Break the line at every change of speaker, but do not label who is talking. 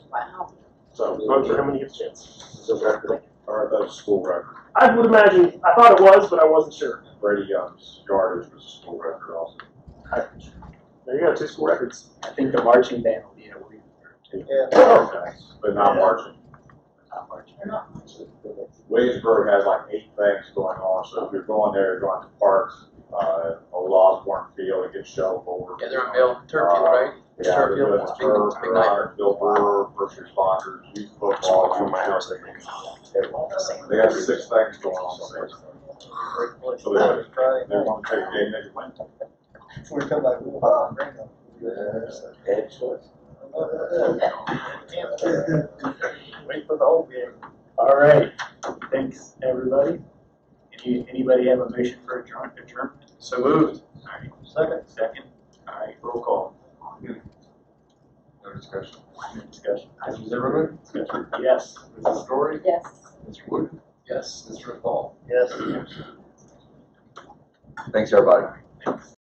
vote for him when he gets a chance.
Is it record, or the school record?
I would imagine, I thought it was, but I wasn't sure.
Brady Young's yardage was a school record also.
There you go, two school records.
I think the marching band will be a week or two,
But not marching.
not marching.
Williamsburg has like eight things going on, so if you're going there, you're going to parks, uh, a Osborne Field, it gets shelled over.
Yeah, they're on Bill Turkey, right?
Yeah,
Sure,
the
Bill,
Williamsburg,
it's big- it's big night.
Ryan, Bill Brewer, first responders, youth football.
From my house, I
They have six things going on, so they, so they, they want to take a game, they can win.
Head choice.
Wait for the whole game. All right, thanks, everybody. Any, anybody have a motion for adjourn, adjournment?
So moved.
All right. Second. Second, all right, roll call.
No discussion.
Any Discussion.
Mr. Zimmerman?
Yes.
Mrs. Story?
Yes.
Mr. Wood?
Yes.
Mr. Paul?
Yes.
Thanks, everybody.
Thanks.